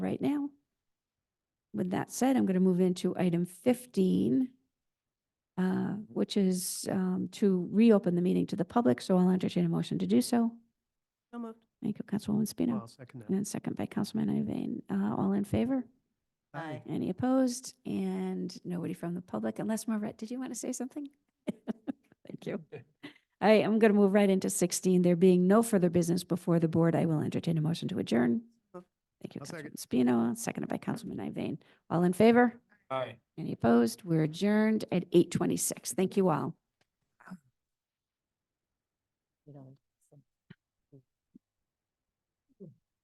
right now. With that said, I'm going to move into item 15, uh, which is um, to reopen the meeting to the public, so I'll entertain a motion to do so. So moved. Thank you, Councilwoman Spino. I'll second that. And second by Councilman Iveyne. Uh, All in favor? Aye. Any opposed? And nobody from the public, unless Marvette, did you want to say something? Thank you. I am going to move right into 16. There being no further business before the board, I will entertain a motion to adjourn. Move. Thank you, I'll second. Councilman Spino, seconded by Councilman Iveyne. All in favor? Aye. Any opposed? We're adjourned at 8:26. Thank you all.